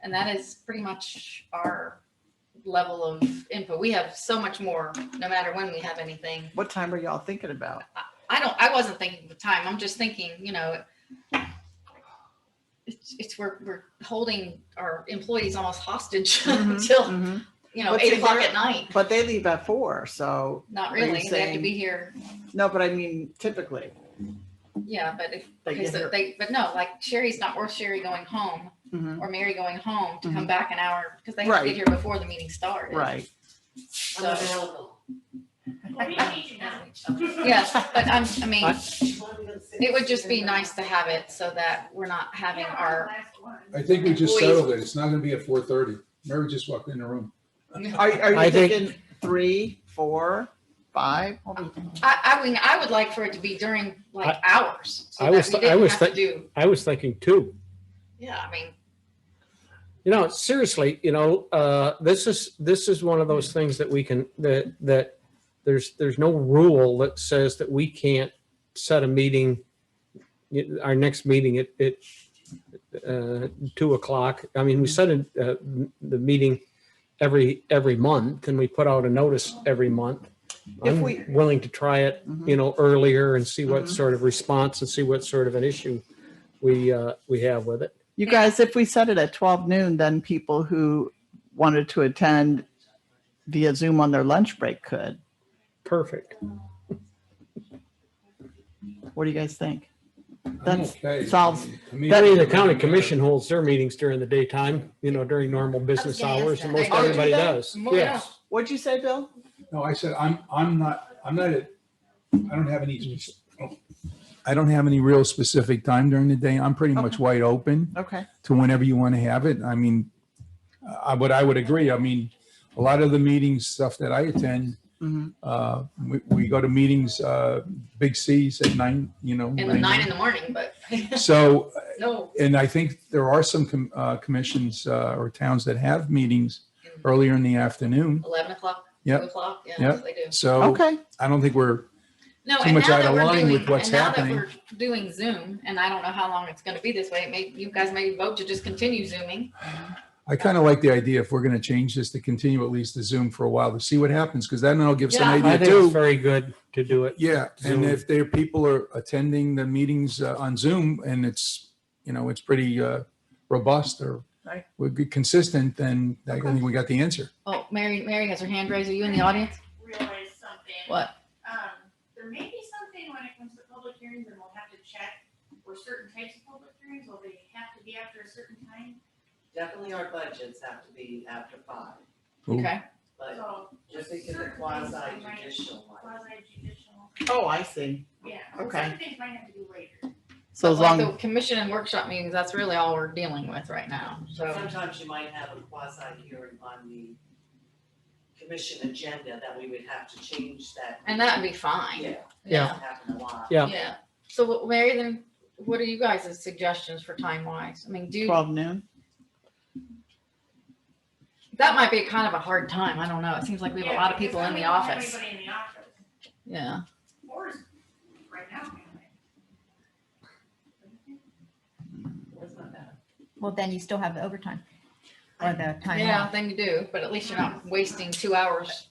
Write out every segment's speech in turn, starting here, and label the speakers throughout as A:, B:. A: And that is pretty much our level of input. We have so much more, no matter when we have anything.
B: What time are y'all thinking about?
A: I don't, I wasn't thinking of the time. I'm just thinking, you know, it's, it's we're, we're holding our employees almost hostage
B: Mhm.
A: until,
B: Mhm.
A: you know,
B: But
A: eight
B: see,
A: o'clock
B: they're-
A: at night.
B: But they leave at four, so,
A: Not
B: Are you
A: really. They have to
B: saying-
A: be here.
B: no, but I mean typically.
A: Yeah, but if,
B: They
A: okay,
B: get
A: so
B: here-
A: they, but no, like Sherry's not worth Sherry going home
B: Mhm.
A: or Mary going home to come back an hour because they have to
B: Mm-hmm.
A: get
B: Right.
A: here before the meeting started.
B: Right.
C: I'm
A: So,
C: available.
A: yeah, but I'm, I mean,
B: I-
A: it would just be nice to have it so that we're not having our,
D: I think we just
A: Employees.
D: settled it. It's not gonna be at four thirty. Mary just walked in the room.
B: Are, are
E: I
B: you
E: think-
B: thinking three, four, five? What do you think?
A: I, I mean, I would like for it to be during like hours. so
E: I
A: that
E: was-
A: we
E: I
A: didn't
E: was
A: have to Do,
E: I was thinking two.
A: yeah, I mean,
E: You know, seriously, you know, uh, this is, this is one of those things that we can, that, that there's, there's no rule that says that we can't set a meeting, you- our next meeting at, at, uh, two o'clock. I mean, we set a, uh, the meeting every, every month and we put out a notice every month.
B: If
E: I'm
B: we-
E: willing to try it
B: Mhm.
E: you know, earlier and see
B: Mhm.
E: what sort of response and see what sort of an issue we, uh, we have with it.
B: You guys, if we set it at twelve noon, then people who wanted to attend via Zoom on their lunch break could.
E: Perfect.
B: What do you guys think?
D: I'm
B: That's-
D: okay.
B: solves-
D: To me,
E: I
B: that
E: mean, the county commission holds their meetings during the daytime, you know, during normal business
A: I was gonna
E: hours
A: ask
E: and
A: that.
E: most
A: Oh, do
E: everybody
B: they?
E: does.
A: Well,
E: Yes.
B: What'd you say, Bill?
D: No, I said, I'm, I'm not, I'm not, at- I don't have any, I don't have any real specific time during the day. I'm pretty much wide open
B: Okay.
D: to whenever you want to have it. I mean, I, but I would agree. I mean, a lot of the meetings, stuff that I attend,
E: Mm-hmm.
B: Mhm.
D: uh, we, we go to meetings, uh, big C's at nine, you know.
A: in the nine in the morning, but
D: So
A: no.
D: And I think there are some com- uh, commissions uh, or towns that have meetings earlier in the afternoon.
A: 11 o'clock, 2
D: Yep.
A: o'clock, yeah,
D: Yep.
A: they do.
D: So
B: Okay.
D: I don't think we're,
A: No,
D: Too
A: and
D: much
A: now
D: out
A: that
D: of
A: we're
D: line
A: doing,
D: with what's
A: and now that
D: happening.
A: we're doing Zoom, and I don't know how long it's gonna be this way, it may, you guys may vote to just continue Zooming.
D: I kind of like the idea if we're going to change this to continue at least the Zoom for a while to see what happens, because then it'll give some
A: Yeah.
E: I
D: idea
E: think it's
D: too.
E: very good to do it.
D: Yeah,
E: Zoom.
D: and if there, people are attending the meetings uh, on Zoom and it's, you know, it's pretty uh, robust or
B: Right.
D: we're good- consistent, then I
A: Okay.
D: think we got the answer.
A: Oh, Mary, Mary has her hand raised, are you in the audience?
C: Realize something.
A: What?
C: Um, there may be something when it comes to public hearings and we'll have to check for certain types of public hearings, will they have to be after a certain time?
F: Definitely our budgets have to be after five,
D: Ooh.
A: Okay,
F: but
C: So
F: just because of quasi judicial one.
C: quasi judicial,
B: Oh, I see.
C: yeah.
B: Okay.
C: Some things might have to be later.
B: So as
A: like the
B: long,
A: commission and workshop meetings, that's really all we're dealing with right now, so.
F: Sometimes you might have a quasi hearing on the commission agenda that we would have to change that.
A: And that'd be fine.
F: Yeah,
E: Yeah.
F: that happened a lot.
E: Yeah.
A: Yeah. So what- Mary, then what are you guys' suggestions for time wise? I mean, do,
B: twelve noon?
A: that might be kind of a hard time. I don't know. It seems like we have a lot of
C: Yeah,
A: people in the
C: because we don't have
A: office.
C: Anybody in the office,
A: Yeah.
C: or is- right now. anyway.
F: That's not bad.
G: Well, then you still have the overtime or the time
A: Yeah,
G: off.
A: then you do, but at least you're not wasting two hours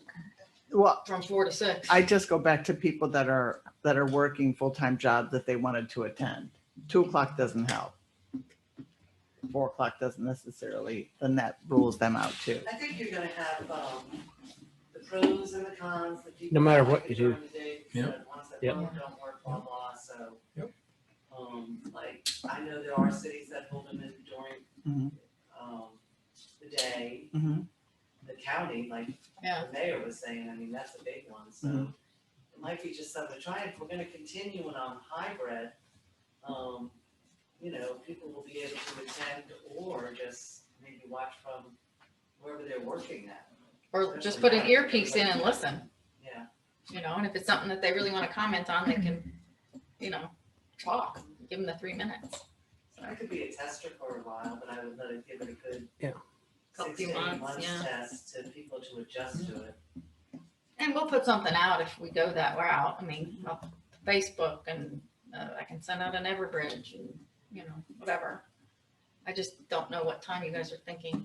B: Well,
A: from four to six.
B: I just go back to people that are, that are working full-time jobs that they wanted to attend. Two o'clock doesn't help. Four o'clock doesn't necessarily, then that rules them out too.
F: I think you're gonna have, um, the pros and the cons, the people.
E: No matter
F: that
E: what
F: like
E: you
F: it
E: do.
F: during the day, the ones that
E: Yep.
F: don't, don't work, blah, blah, so.
D: Yep.
F: Um, like, I know there are cities that hold them in during,
B: Mhm.
F: um, the day,
B: Mhm.
F: the county, like
A: Yeah.
F: the mayor was saying, I mean, that's a big one, so.
B: Mhm.
F: It might be just something to try, if we're gonna continue it on hybrid, um, you know, people will be able to attend or just maybe watch from wherever they're working at,
A: Or just put an earpiece in and listen,
F: yeah.
A: you know, and if it's something that they really want to comment on, they can, you know, talk, give them the three minutes.
F: I could be a tester for a while, but I would let it give it a good.
E: Yeah.
A: Couple
F: Six to eight
A: months,
F: months
A: yeah.
F: test to people to adjust to it.
A: And we'll put something out if we go that route. I mean, I'll- Facebook and uh, I can send out an Everbridge and, you know, whatever. I just don't know what time you guys are thinking.